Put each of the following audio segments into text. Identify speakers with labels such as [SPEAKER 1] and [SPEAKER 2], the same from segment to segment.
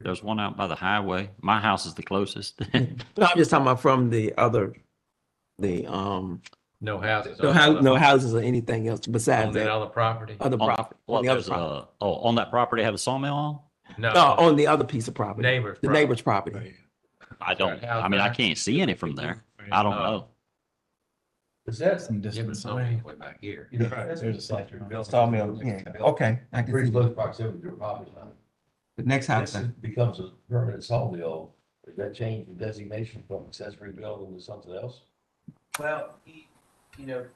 [SPEAKER 1] There's one out by the highway. My house is the closest.
[SPEAKER 2] No, I'm just talking about from the other, the, um,
[SPEAKER 3] No houses.
[SPEAKER 2] no hou- no Uh, houses or anything else besides
[SPEAKER 3] On that
[SPEAKER 2] that,
[SPEAKER 3] other property?
[SPEAKER 2] other
[SPEAKER 1] On-
[SPEAKER 2] property.
[SPEAKER 1] Well,
[SPEAKER 2] on the other
[SPEAKER 1] there's
[SPEAKER 2] property.
[SPEAKER 1] a, oh, on that property have a sawmill on?
[SPEAKER 2] No, on the other piece of property,
[SPEAKER 3] Neighbors.
[SPEAKER 2] the neighbor's property.
[SPEAKER 1] I don't,
[SPEAKER 3] house
[SPEAKER 1] I mean, I
[SPEAKER 3] there?
[SPEAKER 1] can't see any from there. I
[SPEAKER 2] Uh,
[SPEAKER 1] don't
[SPEAKER 3] Oh.
[SPEAKER 1] know.
[SPEAKER 4] Is that?
[SPEAKER 5] Some
[SPEAKER 3] Yeah, but
[SPEAKER 5] distance away.
[SPEAKER 3] somewhere way back here.
[SPEAKER 4] You know, that's-
[SPEAKER 5] There's a site.
[SPEAKER 4] Sawmill, yeah.
[SPEAKER 5] Okay, I can
[SPEAKER 4] Pretty
[SPEAKER 5] see.
[SPEAKER 4] close proximity to a property line.
[SPEAKER 5] The next house
[SPEAKER 4] This
[SPEAKER 5] then.
[SPEAKER 4] becomes a permanent sawmill. Does that change the designation from accessory building to something else?
[SPEAKER 6] Well, he, you know,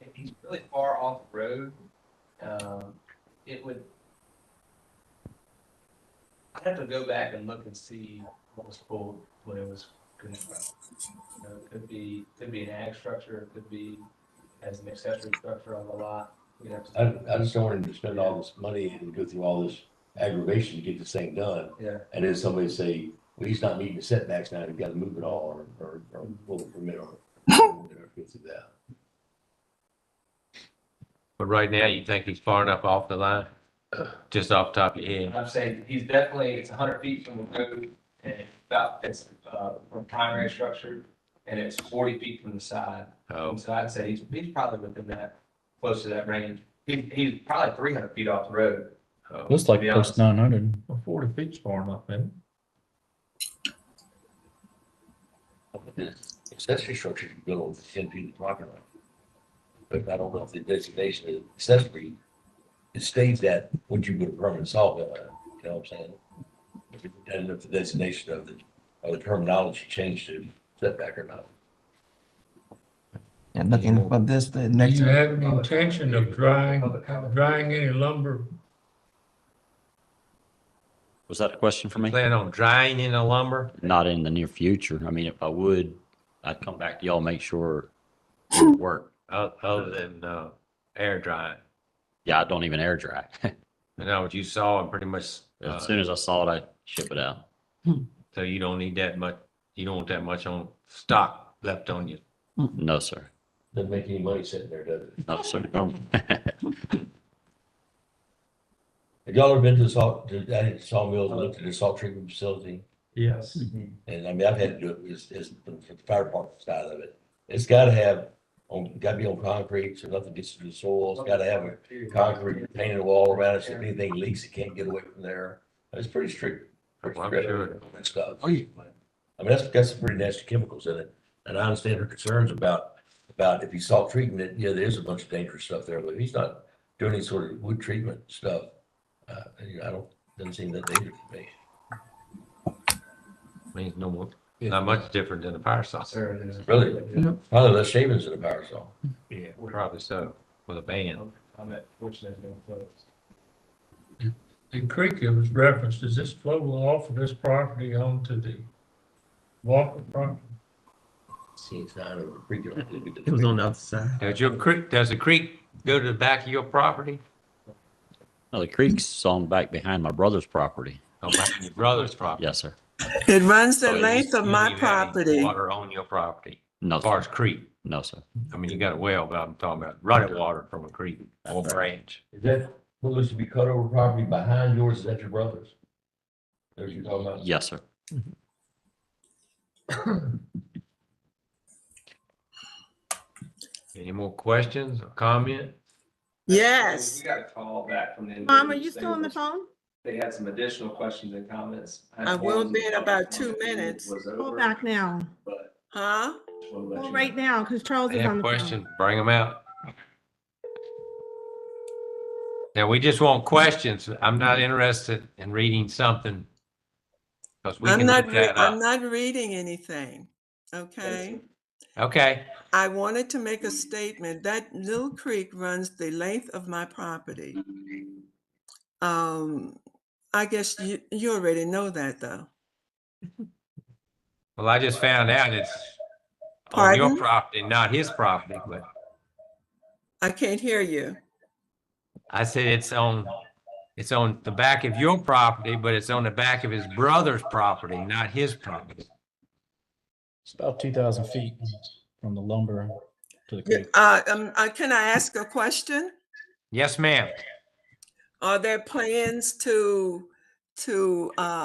[SPEAKER 6] if he's really far off the road, um, it would. I'd have to go back and look and see what was pulled when it was constructed. You know, it could be, could be an ag structure, it could be as an accessory structure on the lot, you know.
[SPEAKER 4] I, I just don't want him to spend all this money and go through all this aggravation to get this thing done.
[SPEAKER 6] Yeah,
[SPEAKER 4] And then somebody say, well, he's not meeting the setbacks now, you've got to move it all or, or, or pull the permit or. or go through that.
[SPEAKER 3] But right now, you think he's far enough off the line? Just off the top of your head?
[SPEAKER 6] I'm saying he's definitely, it's hundred feet from the road and about, it's, uh, from primary structure and it's forty feet from the side.
[SPEAKER 3] Oh,
[SPEAKER 6] Um, So I'd say he's, he's probably within that, close to that range. He, he's probably three hundred feet off the road.
[SPEAKER 3] oh.
[SPEAKER 5] Looks like
[SPEAKER 6] To be
[SPEAKER 5] close
[SPEAKER 6] honest.
[SPEAKER 5] nine hundred.
[SPEAKER 3] Forty feet's far enough, man.
[SPEAKER 4] Accessory structure can go over ten feet of property line. But I don't know if the designation is accessory, it states that when you put a permanent sawmill in, uh, you know what I'm saying? If it- And if the designation of the, of the terminology changed to setback or not.
[SPEAKER 5] And looking for this, the next.
[SPEAKER 7] Do you have an intention of drying, drying any lumber?
[SPEAKER 1] Was that a question for me?
[SPEAKER 3] Plan on drying in the lumber?
[SPEAKER 1] Not in the near future. I mean, if I would, I'd come back to y'all, make sure it would work.
[SPEAKER 3] o- Other than, uh, air drying?
[SPEAKER 1] Yeah, I don't even air dry.
[SPEAKER 3] You know, what you saw and pretty much, uh,
[SPEAKER 1] As soon as I saw it, I ship it out.
[SPEAKER 3] so you don't need that much, you don't want that much on stock left on you.
[SPEAKER 2] Hmm.
[SPEAKER 1] No, sir.
[SPEAKER 4] Doesn't make any money sitting there, does it?
[SPEAKER 1] No, sir. No.
[SPEAKER 4] Have y'all ever been to the salt, to that sawmill, and looked at the salt treatment facility?
[SPEAKER 7] Yes.
[SPEAKER 4] And I mean, I've had to do it, it's, it's from the fire department side of it. It's gotta have, on, gotta be on concrete, so nothing gets to the soil, it's gotta have a concrete painted wall around it, so if anything leaks, it can't get away from there. It's pretty strict. pretty
[SPEAKER 3] Well, Oh, I'm
[SPEAKER 4] strict
[SPEAKER 3] sure.
[SPEAKER 4] and Stuff.
[SPEAKER 1] Oh, yeah.
[SPEAKER 4] I mean, that's, got some pretty nasty chemicals in it, and I understand her concerns about, about if he's salt treating it, yeah, there's a bunch of dangerous stuff there, but if he's not doing any sort of wood treatment stuff, uh, you know, I don't, doesn't seem that dangerous to me.
[SPEAKER 3] Means no more, not much different than a fire saw.
[SPEAKER 6] Sir, it is.
[SPEAKER 4] Really? Probably less shavings than a power saw.
[SPEAKER 3] Yeah, probably so, with a band.
[SPEAKER 6] I'm at, which is going close.
[SPEAKER 7] The creek it was referenced, is this flowing off of this property onto the Walker property?
[SPEAKER 4] See, it's not a freaking.
[SPEAKER 2] It was on the other side.
[SPEAKER 3] Does your creek, does the creek go to the back of your property?
[SPEAKER 1] No, the creek's on back behind my brother's property.
[SPEAKER 3] Or back of your brother's property?
[SPEAKER 1] Yes, sir.
[SPEAKER 8] It runs
[SPEAKER 6] Oh,
[SPEAKER 8] the
[SPEAKER 3] So
[SPEAKER 8] length
[SPEAKER 3] you-
[SPEAKER 8] of
[SPEAKER 3] you
[SPEAKER 8] my
[SPEAKER 3] don't even have any
[SPEAKER 8] property.
[SPEAKER 3] Water on your property,
[SPEAKER 1] No,
[SPEAKER 3] as far
[SPEAKER 1] sir.
[SPEAKER 3] as creek.
[SPEAKER 1] No, sir.
[SPEAKER 3] I mean, you got a well, but I'm talking about running water from a creek or branch.
[SPEAKER 4] Is that what was to be cut over property behind yours? Is that your brother's? That what you're talking about?
[SPEAKER 1] Yes, sir.
[SPEAKER 3] Any more questions or comment?
[SPEAKER 6] We
[SPEAKER 8] Yes.
[SPEAKER 6] got a call back from the.
[SPEAKER 8] Mom, are you still on the
[SPEAKER 6] individuals.
[SPEAKER 8] phone?
[SPEAKER 6] They had some additional questions and comments.
[SPEAKER 8] I will
[SPEAKER 6] informed
[SPEAKER 8] be in
[SPEAKER 6] them
[SPEAKER 8] about
[SPEAKER 6] the
[SPEAKER 8] two
[SPEAKER 6] meeting
[SPEAKER 8] minutes.
[SPEAKER 6] was
[SPEAKER 9] Call
[SPEAKER 6] over,
[SPEAKER 9] back now.
[SPEAKER 6] but
[SPEAKER 8] Huh?
[SPEAKER 6] just wanna let
[SPEAKER 9] Call
[SPEAKER 6] you
[SPEAKER 9] right
[SPEAKER 6] know.
[SPEAKER 9] now, because Charles
[SPEAKER 3] They
[SPEAKER 9] is on
[SPEAKER 3] have
[SPEAKER 9] the phone.
[SPEAKER 3] questions, bring them out. Now, we just want questions. I'm not interested in reading something. Because we
[SPEAKER 8] I'm
[SPEAKER 3] can
[SPEAKER 8] not,
[SPEAKER 3] look
[SPEAKER 8] re-
[SPEAKER 3] that
[SPEAKER 8] I'm
[SPEAKER 3] up.
[SPEAKER 8] not reading anything. Okay?
[SPEAKER 3] Okay,
[SPEAKER 8] I wanted to make a statement. That little creek runs the length of my property. Um, I guess you, you already know that though.
[SPEAKER 3] well, I just found out it's on your
[SPEAKER 8] Pardon?
[SPEAKER 3] property, not his property, but
[SPEAKER 8] I can't hear you.
[SPEAKER 3] I said it's on, it's on the back of your property, but it's on the back of his brother's property, not his property.
[SPEAKER 5] It's about two thousand feet from the lumber to the
[SPEAKER 8] You-
[SPEAKER 5] creek.
[SPEAKER 8] Uh, um, uh, can I ask a question?
[SPEAKER 3] Yes, ma'am.
[SPEAKER 8] Are there plans to, to, uh,